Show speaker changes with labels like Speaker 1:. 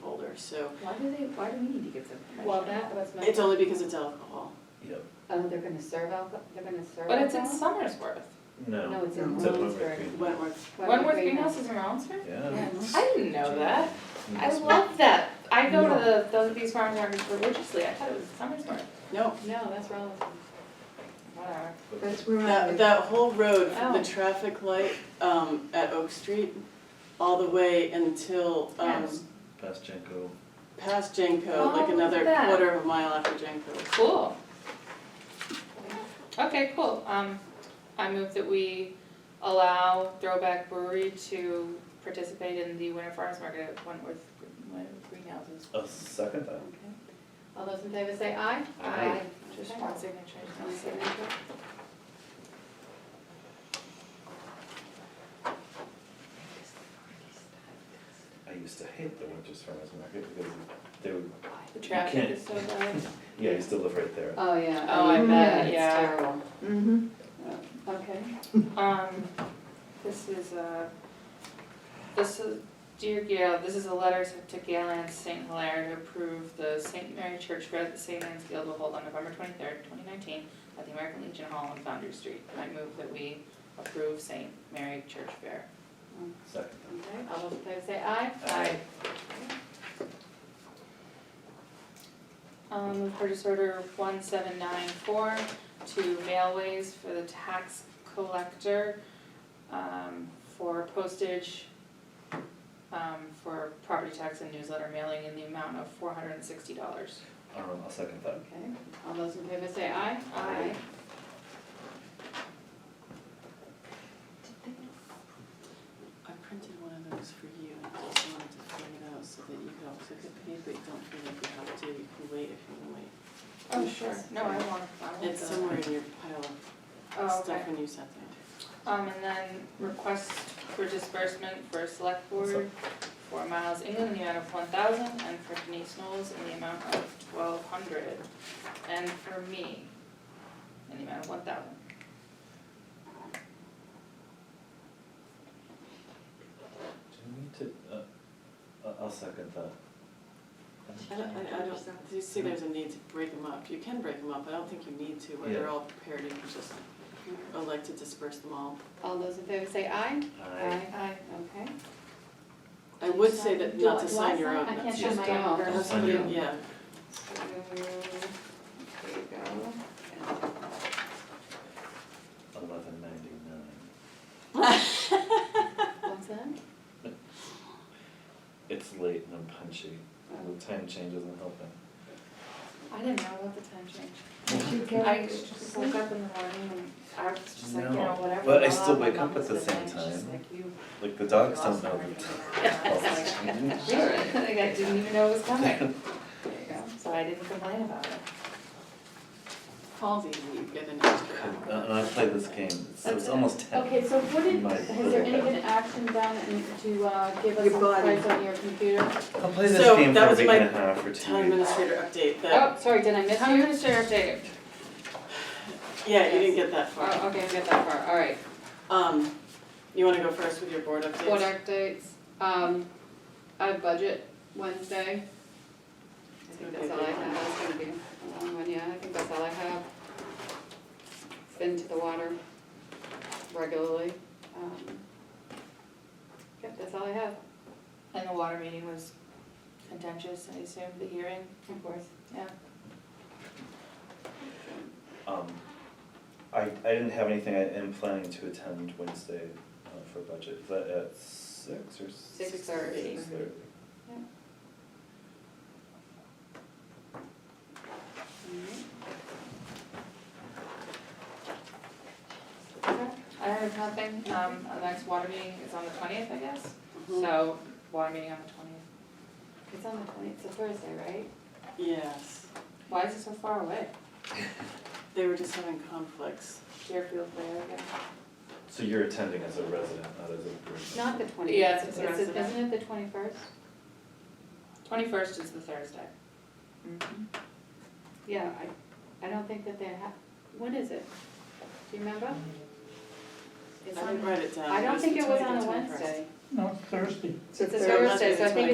Speaker 1: folder, so.
Speaker 2: Why do they, why do we need to give them permission?
Speaker 3: Well, that was my.
Speaker 1: It's only because it's alcohol.
Speaker 4: Yep,
Speaker 2: Oh, they're gonna serve alcohol, they're gonna serve
Speaker 3: But it's in
Speaker 2: alcohol?
Speaker 3: Summersworth.
Speaker 2: No,
Speaker 4: no,
Speaker 2: it's in
Speaker 4: It's at Wentworth
Speaker 2: Williamsburg.
Speaker 4: Green.
Speaker 1: Wentworth,
Speaker 3: Wentworth Greenhouse is in Rollinsford?
Speaker 4: yeah.
Speaker 3: I didn't know that. I
Speaker 4: Yes.
Speaker 3: love that. I go to the, those, these farm markets religiously. I thought it was Summersworth.
Speaker 1: no,
Speaker 2: No, that's Rollinsford.
Speaker 3: Whatever.
Speaker 5: That's where I
Speaker 1: that,
Speaker 5: live.
Speaker 1: that whole road, from
Speaker 3: Oh.
Speaker 1: the traffic light, um, at Oak Street, all the way until, um,
Speaker 3: Yes.
Speaker 4: Past Jenko.
Speaker 1: past Jenko,
Speaker 3: Oh, look
Speaker 1: like
Speaker 3: at
Speaker 1: another
Speaker 3: that.
Speaker 1: quarter of a mile after Jenko.
Speaker 3: Cool. Okay, cool. Um, I move that we allow Throwback Brewery to participate in the Winter Farmers Market at Wentworth Wentworth Greenhouses.
Speaker 4: A second time.
Speaker 2: Okay. All those in favor say aye?
Speaker 4: Aye.
Speaker 3: Just
Speaker 2: Okay.
Speaker 3: one signature.
Speaker 2: One signature.
Speaker 4: I used to hate the Winchester Farmers Market because they would,
Speaker 3: The traffic
Speaker 4: can't-
Speaker 3: is so bad.
Speaker 4: yeah, I used to live right there.
Speaker 2: Oh, yeah.
Speaker 3: Oh, I
Speaker 2: Mm,
Speaker 3: bet,
Speaker 2: it's
Speaker 3: yeah.
Speaker 2: terrible.
Speaker 5: Mm-hmm.
Speaker 2: Okay.
Speaker 3: Um, this is, uh, this is, dear Gail, this is a letter sent to Galen St. Hilaire to approve the St. Mary Church Red at St. Anne's Guild will hold on November twenty-third, twenty nineteen at the American Legion Hall on Foundry Street. I move that we approve St. Mary Church Fair.
Speaker 4: Second time.
Speaker 2: Okay, all those in favor say aye?
Speaker 4: Aye.
Speaker 3: Um, with purchase order one seven nine four to Mailways for the tax collector, um, for postage, um, for property tax and newsletter mailing in the amount of four hundred and sixty dollars.
Speaker 4: Um, a second time.
Speaker 2: Okay, all those in favor say aye?
Speaker 4: Aye.
Speaker 1: I printed one of those for you, and I just wanted to print it out so that you could also get paid, but you don't feel like you have to, you can wait if you can wait.
Speaker 3: Oh, sure, no, I want, I want
Speaker 1: It's
Speaker 3: the-
Speaker 1: somewhere in your pile
Speaker 3: Oh,
Speaker 1: of
Speaker 3: okay.
Speaker 1: stuff when you sat there.
Speaker 3: Um, and then request for disbursement for select board for Miles England in the amount of one thousand and for Denise Knowles in the amount of twelve hundred. And for me, in the amount of one thousand.
Speaker 4: Do we need to, uh, a, a second time.
Speaker 1: I don't, I- I don't, do you see there's a need to break them up? You can break them up, I don't think you need to, when they're
Speaker 4: Yeah.
Speaker 1: all prepared, you can just Mm-hmm. elect to disperse them all.
Speaker 2: All those in favor say aye?
Speaker 4: Aye.
Speaker 3: Aye.
Speaker 2: Okay.
Speaker 1: I would say that
Speaker 2: Do I-
Speaker 1: not to
Speaker 2: do I
Speaker 1: sign your own.
Speaker 2: I can't
Speaker 4: Just
Speaker 2: sign my own.
Speaker 4: don't.
Speaker 1: Have
Speaker 2: first.
Speaker 4: Sign your
Speaker 1: somebody-
Speaker 4: own.
Speaker 1: Yeah,
Speaker 2: So, There you go.
Speaker 4: Eleven ninety-nine.
Speaker 2: What's that?
Speaker 4: It's late and I'm punchy. The time change isn't helping.
Speaker 3: I didn't know about the time change.
Speaker 5: Did you get
Speaker 3: I
Speaker 5: extra
Speaker 3: just woke up in the morning and I was just like, you know,
Speaker 4: No,
Speaker 3: whatever.
Speaker 4: but I
Speaker 3: blah,
Speaker 4: still
Speaker 3: blah,
Speaker 4: wake
Speaker 3: blah,
Speaker 4: up at the
Speaker 3: blah, blah,
Speaker 4: same
Speaker 3: blah, and she's
Speaker 4: time.
Speaker 3: like, you
Speaker 4: Like the dogs
Speaker 3: lost
Speaker 4: don't know
Speaker 3: my
Speaker 4: the
Speaker 3: record.
Speaker 4: time.
Speaker 3: All right. Like I didn't even know it was coming. There you go. So I didn't complain about it.
Speaker 1: Paul's easy, you get an extra.
Speaker 4: And Uh, and I play this game, so it's
Speaker 3: That's-
Speaker 4: almost ten.
Speaker 2: Okay, so what did,
Speaker 4: My-
Speaker 2: has there any been action done in- to uh, give us
Speaker 5: Your
Speaker 2: some
Speaker 5: body.
Speaker 2: price on your computer?
Speaker 4: I'll play this
Speaker 1: So,
Speaker 4: game for
Speaker 1: that
Speaker 4: a
Speaker 1: was
Speaker 4: week
Speaker 1: my
Speaker 4: and a half or two
Speaker 1: Town
Speaker 4: weeks.
Speaker 1: administrator update, that,
Speaker 2: Oh, sorry, did I miss
Speaker 3: Town
Speaker 2: you?
Speaker 3: administrator update.
Speaker 1: yeah, you didn't get that far.
Speaker 2: Oh, okay, I got that far, all right.
Speaker 1: Um, you wanna go first with your board updates?
Speaker 2: Oh. Board updates, um, I have budget Wednesday. I think that's all I have, that's gonna be a long one, yeah, I think that's all I have. It's Been to the water regularly, um, yep, that's all I have.
Speaker 3: And the water meeting was contentious, I assume, the hearing,
Speaker 2: Of course.
Speaker 3: yeah.
Speaker 4: Um, I, I didn't have anything, I am planning to attend Wednesday uh, for budget, is that at six or? s-
Speaker 2: Six thirty.
Speaker 4: Six thirty.
Speaker 3: I heard nothing, um, the next water meeting is on the twentieth, I guess,
Speaker 1: Mhm.
Speaker 3: so, water meeting on the twentieth.
Speaker 2: Mm-hmm. It's on the twentieth, it's a Thursday, right?
Speaker 1: Yes,
Speaker 3: Why is it so far away?
Speaker 1: they were just having conflicts.
Speaker 3: Deerfield Way, I guess.
Speaker 4: So you're attending as a resident, not as a group?
Speaker 2: Not the twentieth.
Speaker 3: Yeah, it's the rest of that.
Speaker 2: Isn't it the twenty-first?
Speaker 3: Twenty-first is the Thursday.
Speaker 2: Mm-hmm. Yeah, I, I don't think that they have, when is it? Do you remember? It's
Speaker 1: I
Speaker 2: on-
Speaker 1: didn't write it down.
Speaker 2: I don't
Speaker 1: It's
Speaker 2: think it was
Speaker 1: between
Speaker 2: on
Speaker 1: the
Speaker 2: a
Speaker 1: 21st.
Speaker 2: Wednesday.
Speaker 5: No, Thursday.
Speaker 2: It's a
Speaker 1: Thursday.
Speaker 2: Thursday, so I think